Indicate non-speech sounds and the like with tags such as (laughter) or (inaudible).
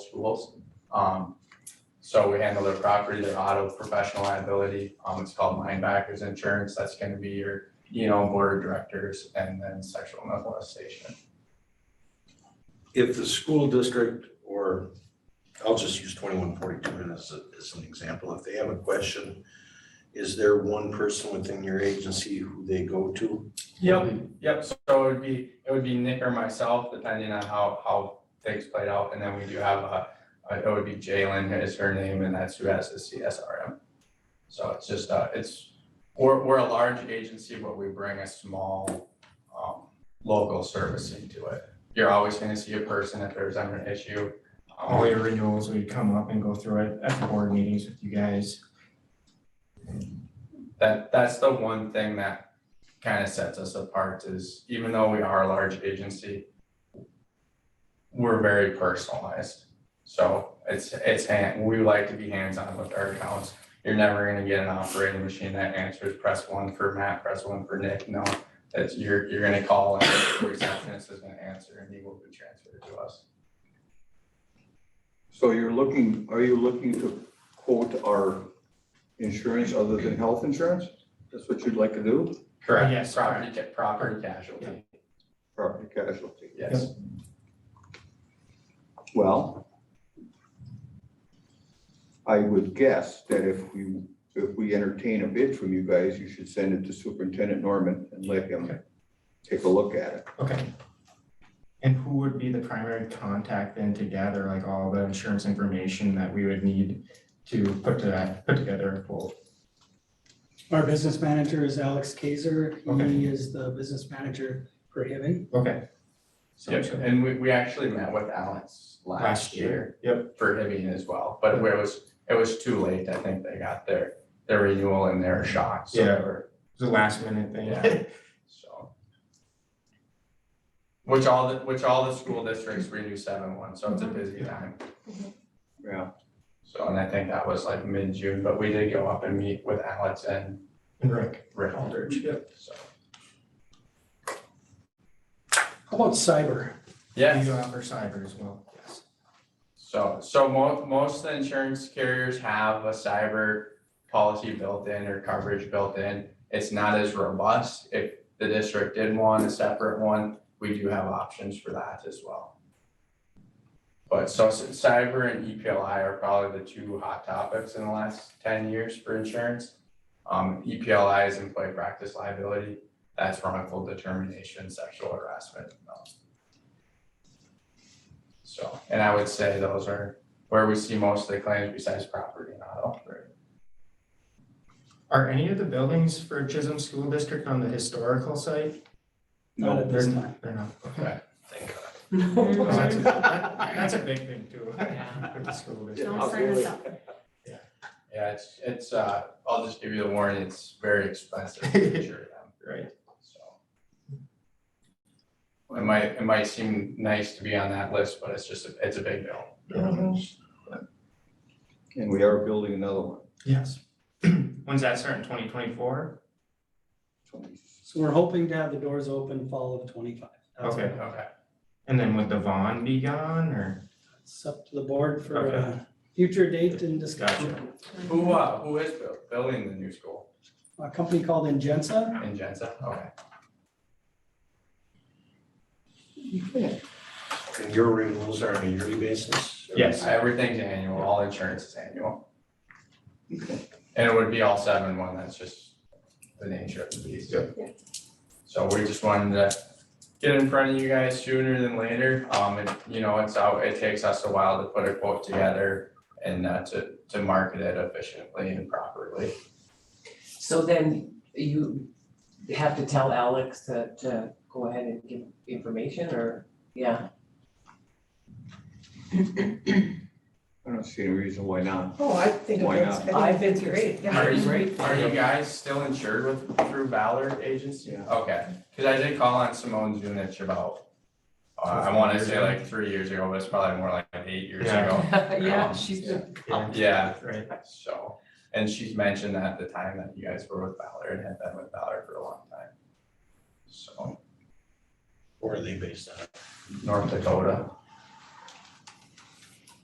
Tools. Um, so we handle their property, their auto, professional liability. Um, it's called linebackers insurance. That's gonna be your, you know, board of directors and then sexual molestation. if the school district or, I'll just use twenty-one forty-two as, a- as an example, if they have a question, is there one person within your agency who they go to? Yep, yep, so it would be, it would be Nick or myself, depending on how, how things played out, and then we do have a, a- it would be Jalen is her name, and that's who has the CSRM. So it's just, uh, it's, we're, we're a large agency, but we bring a small, um, local servicing to it. You're always gonna see a person if there's ever an issue. Um, all your renewals, we come up and go through it at the board meetings with you guys. That, that's the one thing that kind of sets us apart is even though we are a large agency, we're very personalized. So it's, it's, hand- we like to be hands-on with our accounts. You're never gonna get an operating machine that answers press one for Matt, press one for Nick. No, that's, you're, you're gonna call and the receptionist is gonna answer and he will be transferred to us. So you're looking, are you looking to quote our insurance other than health insurance? That's what you'd like to do, Correct. Yes, Property, ca- property casualty, property casualty? yes. Well, I would guess that if we, if we entertain a bid from you guys, you should send it to Superintendent Norman and let him take a look at it. Okay. And who would be the primary contact then to gather like all the insurance information that we would need to put to that, put together a quote? Our business manager is Alex Kaiser. Okay. He is the business manager for Haven. Okay. So- Yep, and we, we actually met with Alex last year. Yep, for Hibbing as well, but it was, it was too late, I think they got their, their renewal and their shot, so. Yeah. we're- it's a last minute thing. Yeah. So. Which all the, which all the school districts renew seven one, so it's a busy time, Yeah. so, and I think that was like mid-June, but we did go up and meet with Alex and (laughs) And Rick, Rick Aldridge, so. How about cyber? Yeah, you offer cyber as well. Yes. So, so mo- most of the insurance carriers have a cyber policy built in or coverage built in. It's not as robust. If the district did want a separate one, we do have options for that as well. But so s- cyber and E EPLI are probably the two hot topics in the last ten years for insurance. Um, EPLI is employee practice liability. That's wrongful determination, sexual harassment, and those. So, and I would say those are where we see most of the claims besides property and auto. Are any of the buildings for Chisholm School District on the historical site? Not at this They're- time. They're not. (laughs) Okay. Okay. That's a- that- that's a big thing too. (laughs) For the school district. Don't sign us up. Yeah, it's, it's, uh, I'll just give you the warning, it's very expensive to insure them, Right. so. It might, it might seem nice to be on that list, but it's just, a- it's a big bill. And we are building another one. Yes. (clears throat) When's that starting? Twenty twenty-four? So we're hoping to have the doors open fall of twenty-five. That's- Okay. Okay, And then would the Vaughn be gone or? It's up to the board for Okay. a future date and discussion. who, uh, who is bu- building the new school A company called Ingenza. in Jensen? Okay, And your renewals are on a yearly basis? Yes. everything's annual, all insurance is annual. And it would be all seven one, that's just the nature of the beast. So we just wanted to get in front of you guys sooner than later. Um, it, you know, it's out, it takes us a while to put a quote together and uh, to, to market it efficiently and properly. So then you have to tell Alex to, to go ahead and give information or, yeah, I don't see any reason why not. Oh, I think Why that's, not? I think it's great, yeah. Are you, great. are you guys still insured with, through Ballard Agency? Yeah. Okay, cause I did call on Simone Zunich about, uh, I wanna say like three years ago, but it's probably more like eight years Yeah. ago. (laughs) Yeah, she's been, Oh, Yeah, Right. so, and she's mentioned at the time that you guys were with Ballard and had been with Ballard for a long time. So. Or are they based on? North Dakota.